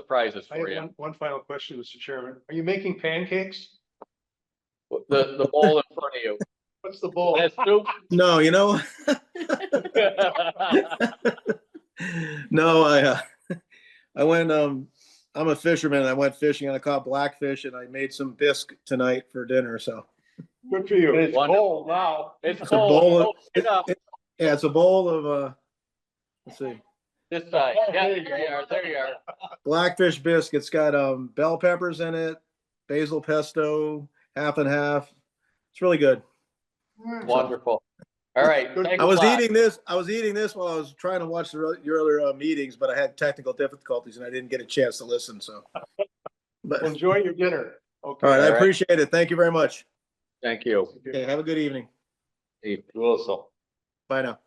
surprises I for have you. one, one final question, Mr. Chairman. Are you making pancakes? The, the bowl in front of you. What's the bowl? Has soup? No, you know, no, I, uh, I went, um, I'm a fisherman. I went fishing and I caught blackfish and I made some bisque tonight for dinner. So Good for you. It's Wonderful. bowl now. It's a cold. bowl of- Don't get up yeah, it's a bowl of, uh, let's see, This side. Yeah, Oh, There you there you are, there you are. blackfish bisque. It's got, um, bell peppers in it, basil pesto, half and half. It's really good. Wonderful. All right. thanks I a was lot. eating this, I was eating this while I was trying to watch the, re- your other uh, meetings, but I had technical difficulties and I didn't get a chance to listen. So, but, all Enjoy your dinner. Okay. right, All I right. appreciate it. Thank you very much. Thank you. Okay, have a good evening. Steve Wilson. Bye now.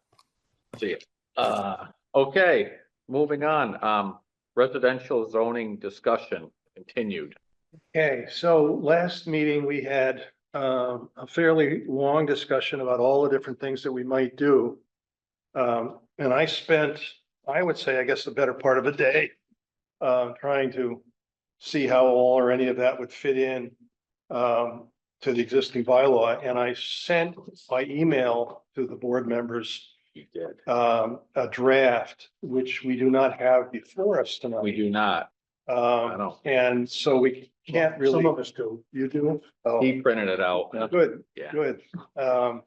See you. Uh, okay, moving on. Um, residential zoning discussion continued. Okay, so last meeting, we had um, a fairly long discussion about all the different things that we might do. Um, And I spent, I would say, I guess, the better part of a day uh, trying to see how all or any of that would fit in um, to the existing bylaw. And I sent by email to the board members You did. um, a draft, which we do not have before us tonight. We do not. I Um, don't. and so we can't really. Some of us do. You do? Oh, He printed it out. good, Yeah. good. Um.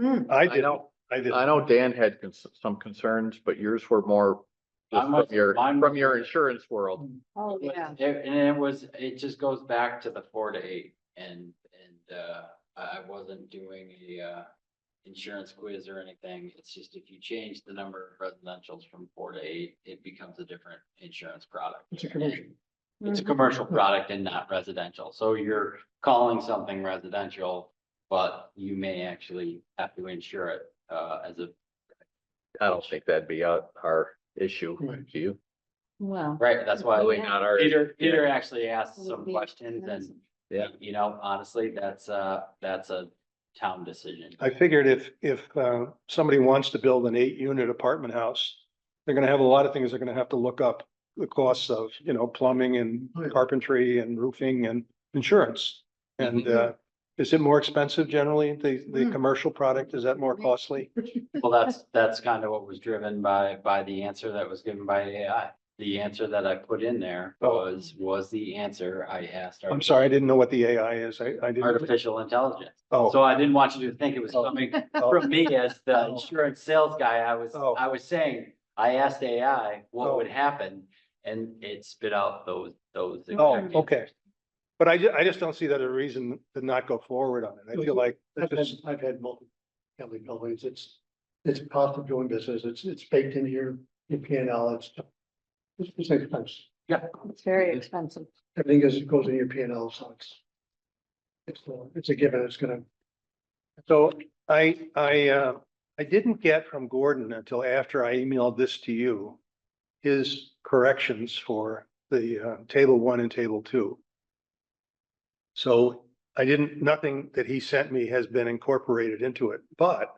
I I did, know, I did. I know Dan had cons- some concerns, but yours were more just Mine from was- your, mine from was- your insurance world. Oh, yeah. And it was, it just goes back to the four to eight and, and, uh, I I wasn't doing a, uh, insurance quiz or anything. It's just if you change the number of residentials from four to eight, it becomes a different insurance product. It's a commercial. It's Mm-hmm. a commercial product and not residential. So you're calling something residential, but you may actually have to insure it, uh, as a, I don't think that'd be our, our issue. Right. Do you? Well. right? That's why. Probably not our. Peter, Oh, yeah. Peter actually asked Would some be questions and. Yeah. You know, honestly, that's a, that's a town decision. I figured if, if, uh, somebody wants to build an eight unit apartment house, they're gonna have a lot of things they're gonna have to look up. The costs of, you know, plumbing and carpentry and roofing and insurance. And, Mhm. uh, is it more expensive generally? The, the Mm. commercial product, is that more costly? Well, that's, that's kind of what was driven by, by the answer that was given by AI. The answer that I put in there Oh. was, was the answer I asked. our I'm sorry, I didn't know what the AI is. I, I didn't. Artificial intelligence. Oh, So I didn't want you to think it was coming from me as the Oh. insurance sales guy. I was, Oh. I was saying, I asked Oh. AI what would happen and it spit out those, those. oh, exact okay. But I, ju- I just don't see that a reason to not go forward on it. I feel like I've had, it's I've had multi-family buildings, it's, it's cost of doing business, it's, it's baked into your, your P and L, it's. It's, it's expense, It's very expensive. everything is, goes in your P and L, so it's. It's, uh, it's a given, it's gonna, So I, I, uh, I didn't get from Gordon until after I emailed this to you. His corrections for the, uh, table one and table two. So I didn't, nothing that he sent me has been incorporated into it, but.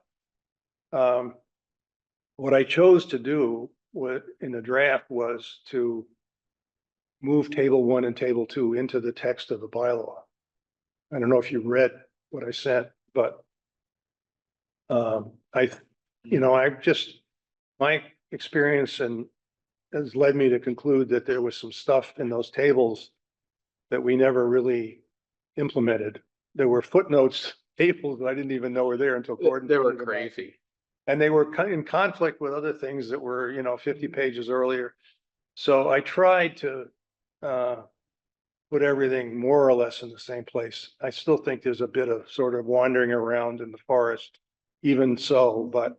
Um, what I chose to do wa- in the draft was to. Move table one and table two into the text of the bylaw. I don't know if you read what I sent, but. Um, I, you know, I've just, my experience and has led me to conclude that there was some stuff in those tables that we never really implemented. There were footnotes, tables that I didn't even know were there until Gordon. They were pointed them out. crazy. And they were co- in conflict with other things that were, you know, fifty Mm-hmm. pages earlier. So I tried to uh put everything more or less in the same place. I still think there's a bit of sort of wandering around in the forest, even so, but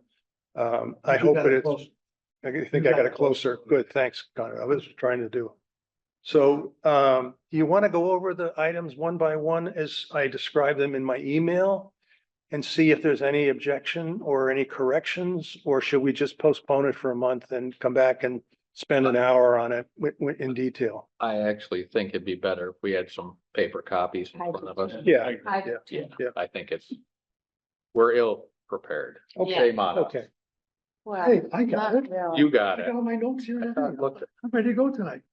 um I You hope got that it it's, close. I think I got it closer. Good, thanks, Connor. I was trying to do. So um, do you want to go over the items one by one as I describe them in my email? And see if there's any objection or any corrections, or should we just postpone it for a month and come back and spend an hour on it wi- wi- in detail? I actually think it'd be better if we had some paper copies in front of us. Yeah, I- Yeah. I think it's, we're ill prepared. okay, Shame on us. okay. Well, Hey, I got not it. really. You I got it. got all my notes here. and I thought- everything. looked- I'm ready to go tonight.